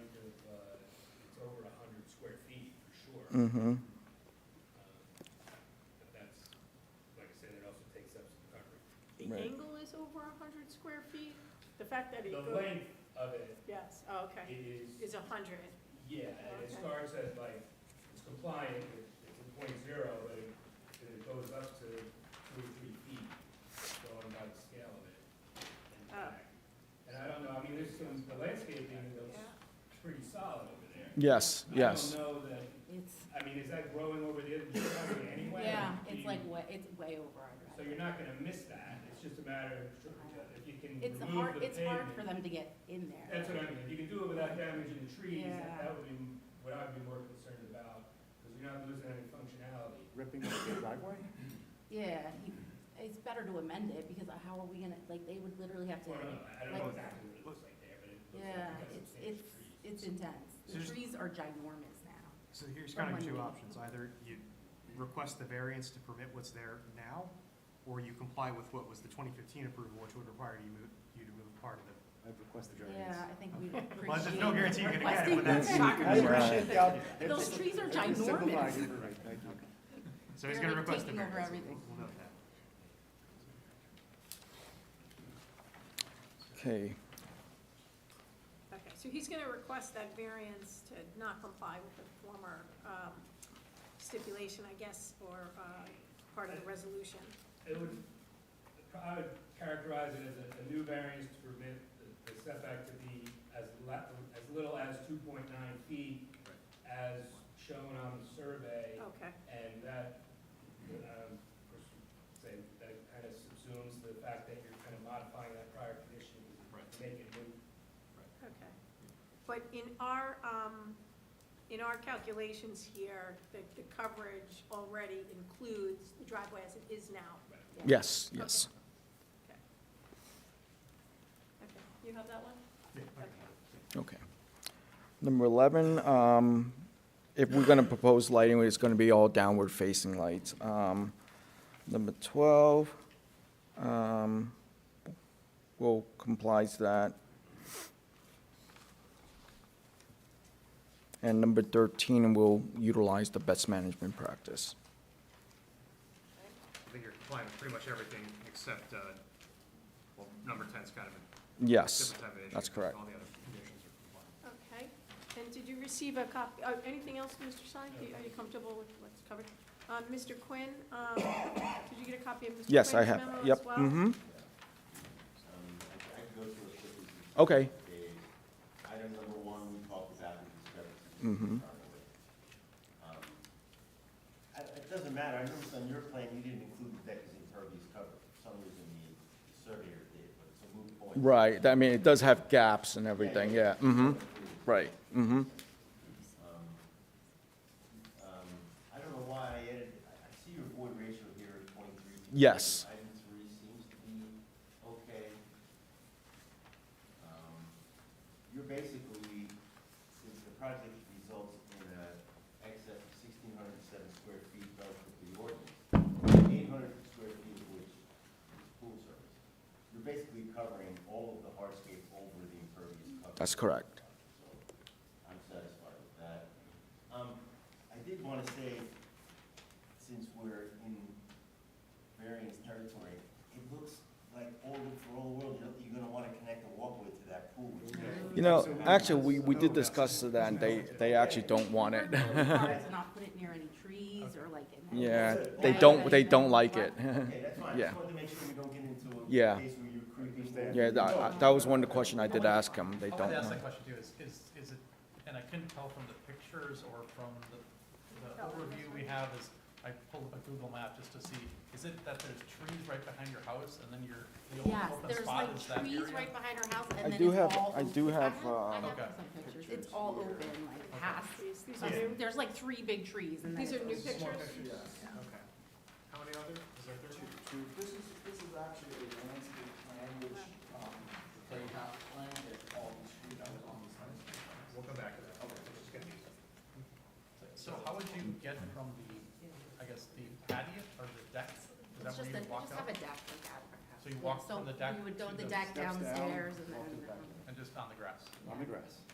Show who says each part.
Speaker 1: uh,
Speaker 2: Mm-hmm.
Speaker 1: Um, But that's, like I said, it also takes up some coverage.
Speaker 3: The
Speaker 2: Right.
Speaker 3: angle is over a hundred square feet? The fact that it
Speaker 1: The
Speaker 3: goes,
Speaker 1: length of it
Speaker 3: yes, oh, okay,
Speaker 1: is,
Speaker 3: is a hundred.
Speaker 1: yeah, and it
Speaker 3: Okay.
Speaker 1: starts at like, it's compliant, it- it's a point zero, but it, it goes up to two or three feet, going by the scale of it. in the
Speaker 3: Oh.
Speaker 1: back. And I don't know, I mean, there's some, the landscaping looks
Speaker 3: Yeah.
Speaker 1: pretty solid over there.
Speaker 4: Yes, yes.
Speaker 1: I don't know that,
Speaker 5: It's,
Speaker 1: I mean, is that growing over the other property anyway?
Speaker 5: yeah,
Speaker 1: Do you-
Speaker 5: it's like way, it's way over our
Speaker 1: So
Speaker 5: driveway.
Speaker 1: you're not gonna miss that, it's just a matter of, tr- if you can remove
Speaker 5: It's
Speaker 1: the
Speaker 5: hard,
Speaker 1: pavement.
Speaker 5: it's hard for them to get in there.
Speaker 1: That's what I mean, if you can do it without damaging the trees,
Speaker 5: Yeah.
Speaker 1: that would be what I'd be more concerned about, because you're not losing any functionality.
Speaker 6: Ripping up the driveway?
Speaker 5: Yeah, he- it's better to amend it because how are we gonna, like, they would literally have to,
Speaker 1: Well, I don't know, I don't know
Speaker 5: like-
Speaker 1: exactly what it looks like there, but it looks like
Speaker 5: yeah,
Speaker 1: you've got
Speaker 5: it's,
Speaker 1: substantial
Speaker 5: it's,
Speaker 1: trees.
Speaker 5: it's intense. The
Speaker 7: So-
Speaker 5: trees are ginormous now.
Speaker 7: So here's
Speaker 5: From
Speaker 7: kind of
Speaker 5: when
Speaker 7: two
Speaker 5: you-
Speaker 7: options, either you request the variance to permit what's there now, or you comply with what was the twenty fifteen approval, which would require you move, you to move part of the.
Speaker 6: I've requested
Speaker 5: Yeah, I think we appreciate.
Speaker 7: Well, there's no guarantee you're gonna get it, but
Speaker 5: requesting
Speaker 7: that's.
Speaker 5: that.
Speaker 2: not gonna be
Speaker 6: I appreciate
Speaker 2: right.
Speaker 6: y'all-
Speaker 5: Those
Speaker 6: it's-
Speaker 5: trees are
Speaker 6: it's simplified,
Speaker 5: ginormous.
Speaker 6: you're right, thank you.
Speaker 7: So he's
Speaker 5: They're
Speaker 7: gonna
Speaker 5: like
Speaker 7: request the
Speaker 5: taking over
Speaker 7: variance.
Speaker 5: everything.
Speaker 7: We'll note that.
Speaker 2: Okay,
Speaker 3: Okay, so he's gonna request that variance to not comply with the former um, stipulation, I guess, or uh, part of the resolution.
Speaker 1: It would, I would characterize it as a, a new variance to permit the- the setback to be as le, as little as two point nine feet as shown on the survey.
Speaker 3: Okay,
Speaker 1: And that, um, of course, say, that kind of subsumes the fact that you're kind of modifying that prior condition to make it new.
Speaker 3: okay. But in our, um, in our calculations here, the, the coverage already includes the driveway as it is now.
Speaker 2: yes, yes.
Speaker 3: Okay, you have that one?
Speaker 7: Yeah, okay.
Speaker 2: Okay. Number 11, um, if we're going to propose lighting, it's going to be all downward-facing lights. Um, Number 12, um, will complies to that. And number 13 will utilize the best management practice.
Speaker 7: I think you're complying with pretty much everything except, uh, well, number ten's kind of a
Speaker 2: Yes,
Speaker 7: different type of issue.
Speaker 2: that's correct.
Speaker 7: All the other conditions are compliant.
Speaker 3: Okay, and did you receive a copy, oh, anything else, Mr. Stein? Do you- Are you comfortable with what's covered? Um, Mr. Quinn, um, did you get a copy of Mr. Quinn's
Speaker 2: Yes, I have,
Speaker 3: memo as
Speaker 2: yep,
Speaker 3: well?
Speaker 2: mm-hmm,
Speaker 8: Um, I I can go through as quickly as we
Speaker 2: okay,
Speaker 8: can. Item number one, we talked about the discrepancy.
Speaker 2: Mhm.
Speaker 8: Um, I- It doesn't matter, I noticed on your plan, you didn't include the deck as impervious cover. For some reason, the the surveyor did, but it's a moot point.
Speaker 2: right, I mean, it does have gaps and everything, yeah, mm-hmm, right, mm-hmm,
Speaker 8: Um, um, I don't know why I added, I I see your void ratio here at twenty-three.
Speaker 2: Yes.
Speaker 8: Item three seems to be okay. Um, You're basically, since the project results in an excess of sixteen hundred and seven square feet relative to the ordinance, eight hundred square feet of which is pool service, you're basically covering all of the hardscape over the impervious cover.
Speaker 2: that's correct,
Speaker 8: So I'm satisfied with that. Um, I did want to say, since we're in variance territory, it looks like all, the- for all the world, you're- you're going to want to connect a walkway to that pool. which-
Speaker 2: You know, actually, we, we did discuss that, and they, they actually don't want it.
Speaker 5: To not put it near any trees or like. in that-
Speaker 2: Yeah, they don't, they don't like it.
Speaker 8: Okay, that's fine. I
Speaker 2: Yeah.
Speaker 8: just wanted to make sure we don't get into
Speaker 2: Yeah.
Speaker 8: a case where you're creeping.
Speaker 6: Understand.
Speaker 2: Yeah, that, I- that was one of the question I did ask them, they
Speaker 9: I
Speaker 2: don't
Speaker 9: wanted to ask
Speaker 2: want
Speaker 9: that
Speaker 2: it.
Speaker 9: question too, is, is, is it, and I couldn't tell from the pictures or from the, the
Speaker 3: Oh,
Speaker 9: overview
Speaker 3: that's
Speaker 9: we
Speaker 3: right.
Speaker 9: have is, I pulled up a Google map just to see, is it that there's trees right behind your house and then your, the
Speaker 5: Yes,
Speaker 9: only open
Speaker 5: there's
Speaker 9: spot
Speaker 5: like
Speaker 9: is that area?
Speaker 5: trees right behind our house
Speaker 2: I
Speaker 5: and then
Speaker 2: do
Speaker 5: it's
Speaker 2: have-
Speaker 5: all.
Speaker 2: I
Speaker 5: open.
Speaker 2: do have,
Speaker 5: I
Speaker 2: uh,
Speaker 5: have
Speaker 9: Okay.
Speaker 5: some pictures. It's all open, like past.
Speaker 3: These, these are
Speaker 5: there's-
Speaker 3: new,
Speaker 5: There's like three big trees and then.
Speaker 3: these are
Speaker 5: it's
Speaker 3: new
Speaker 5: open.
Speaker 7: More
Speaker 3: pictures?
Speaker 7: pictures? Okay. How many other, is there thirty?
Speaker 10: This is, this is actually a landscape plan which, um, they have planned at all the street that was on this landscape. plan.
Speaker 7: We'll come back to that. Okay. It's gonna be.
Speaker 9: So how would you get from the, I guess, the patio or the deck? Is that
Speaker 5: It's just
Speaker 9: where you
Speaker 5: that, they
Speaker 9: walk
Speaker 5: just have a
Speaker 9: up
Speaker 5: deck like that. at our house.
Speaker 9: So you
Speaker 5: Yeah,
Speaker 9: walk from the deck
Speaker 5: So we would go
Speaker 9: to
Speaker 5: the
Speaker 9: the
Speaker 5: deck
Speaker 6: Steps down,
Speaker 5: downstairs and
Speaker 6: walk to the back.
Speaker 5: then. um,
Speaker 9: and just on the grass?
Speaker 6: On the grass.